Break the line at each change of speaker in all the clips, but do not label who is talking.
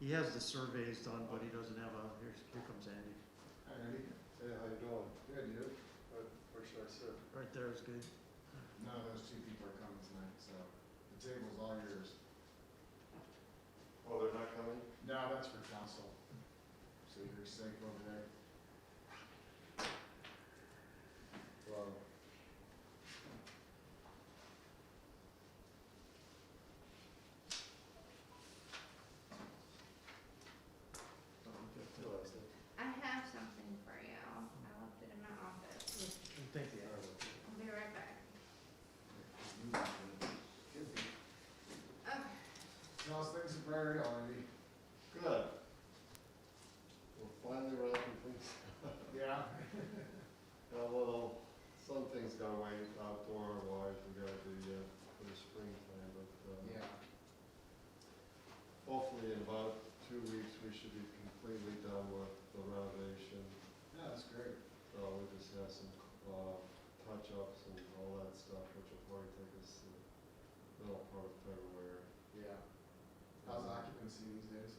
He has the surveys done, but he doesn't have a, here, here comes Andy.
Andy, hey, how you doing? Good, you? What, what should I serve?
Right there is good.
No, those two people are coming tonight, so the table's all yours.
Oh, they're not coming?
No, that's for council. So you're safe over there. Well.
Realize that.
I have something for you. I left it in my office.
Thank you. Andy.
I'll be right back. Okay.
Now, things are priority.
Good. We're finally wrapping things.
Yeah.
Got a little, some things got away outdoor wise, we gotta do yet for the springtime, but, uh,
Yeah.
hopefully in about two weeks, we should be completely done with the renovation.
No, that's great.
Uh, we just have some, uh, touch-ups and all that stuff, which will probably take us the middle part of February.
Yeah. How's occupancy these days?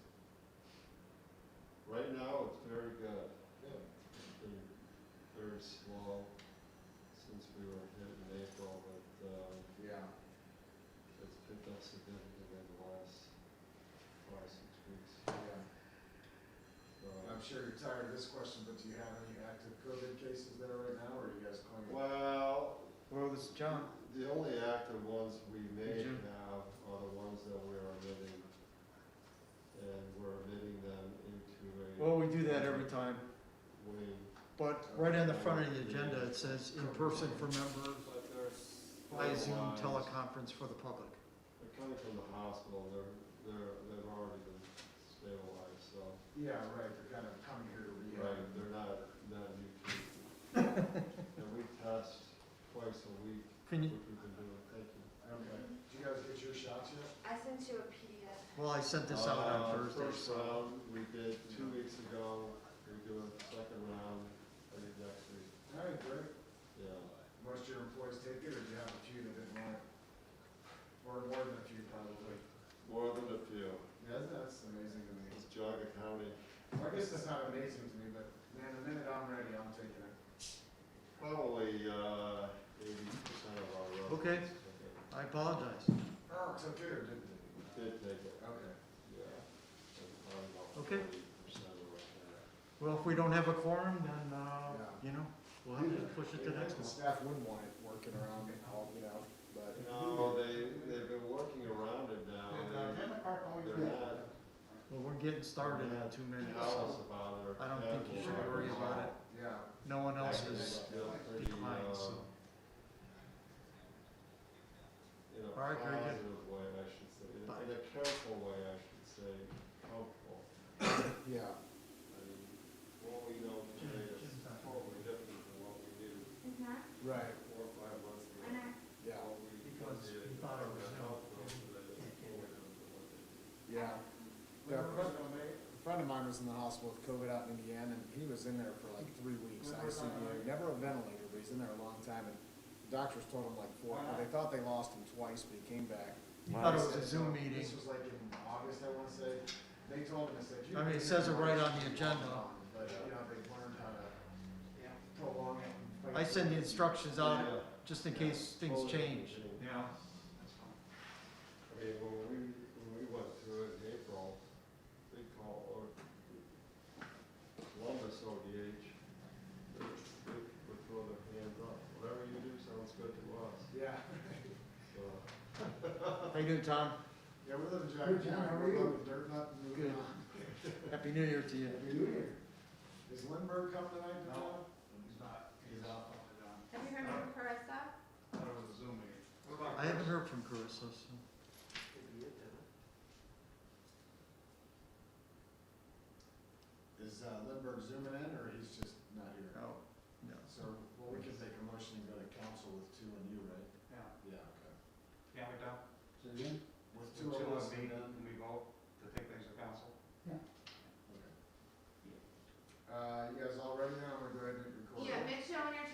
Right now, it's very good.
Yeah.
been very slow since we were hit in April, but um,
Yeah.
it's picked up significantly in the last five, six weeks.
Yeah. And I'm
So-
sure you're tired of this question, but do you have any active COVID cases there right now, or are you guys clean?
Well,
Well, this is John.
the only active ones we may
Hey, Jim.
have are the ones that we're admitting. And we're admitting them into a
Well, we do that every time,
wing.
but right on the front of the agenda, it says in person for members,
But there's.
by Zoom
otherwise-
teleconference for the public.
They're coming from the hospital, they're, they're, they've already been stabilized, so.
Yeah, right, they're kind of coming here to
Right,
rehab.
they're not, not new cases. And we test twice a week,
Can
which
you,
we've been doing, thank you.
Okay. Did you guys get your shots yet?
I sent you a PDF.
well, I sent this out
Uh,
on Thursday,
First
so.
round, we did two weeks ago, we're doing the second round, I think next week,
All right, great.
yeah.
Most of your employees take it, or do you have a few that didn't want it? Or more than a few, probably.
More than a few,
Yeah, that's- that's amazing to me.
it's Jaga County.
Well, I guess it's not amazing to me, but man, the minute I'm ready, I'm taking it.
Probably, uh, eighty percent of our residents.
Okay.
took
I apologize.
Oh, so good, didn't it?
it. Did take it,
Okay.
yeah. And probably about
Okay.
40% of our-
Well, if we don't have a quorum, then, uh,
Yeah.
you know, we'll have to push it to next
The
month.
staff wouldn't want it working around, getting hauled, you know, but.
No, they, they've been working around it now,
uh,
They- They're not
Well, we're getting started in uh, two minutes,
callous
so
about it.
I don't think you should worry about it.
Yeah.
No one else
Actually,
is
they're pretty, uh,
declined, so.
In a
All right, very good.
positive way, I should say, in
Bye.
a- in a careful way, I should say, helpful.
Yeah.
I mean, what we know today is totally different than what we knew
Is that?
Right.
four or five months ago.
And I,
Yeah.
What we
Because
did
we thought it was
about
no.
health today is totally different than what they did.
Yeah. Yeah, a friend of mine- a friend of mine was in the hospital with COVID out in Indiana, and he was in there for like three weeks, ICU, never a ventilator, but he's in there a long time, and the doctors told him like four, well, they thought they lost him twice, but he came back.
Thought it was a Zoom meeting.
This was like in August, I wanna say, they told him, they said. "You
I mean, it says it right on the agenda.
But, you know, they learned how to prolong it. and
I
fight
send the
through it.
instructions out,
Yeah.
just in case uh, things
Totally
change.
different.
Yeah.
I mean, when we, when we went through it in April, they call, or Columbus ODH, they they would throw their hands up, whatever you do sounds good to us,
Yeah.
so.
How you doing, Tom?
Yeah, we live in
Good,
Jack
John, how
County,
are
we
you?
live in Dirt Nut, and moving
Good.
on.
Happy New Year to you.
Happy New Year. Is Lindbergh coming tonight?
No.
John?
He's not, he's out on the down.
have you heard from Carissa?
I thought it was a Zoom meeting.
I haven't heard from Carissa, so.
Is uh, Lindbergh zooming in, or he's just not here?
No, no.
So, well, we can take a motion and go to council with two and you, right?
Yeah,
Yeah, okay.
can't we don't?
With
Two
two
of us meet
and
and
then-
we vote to take things to council.
okay. Uh, you guys all ready to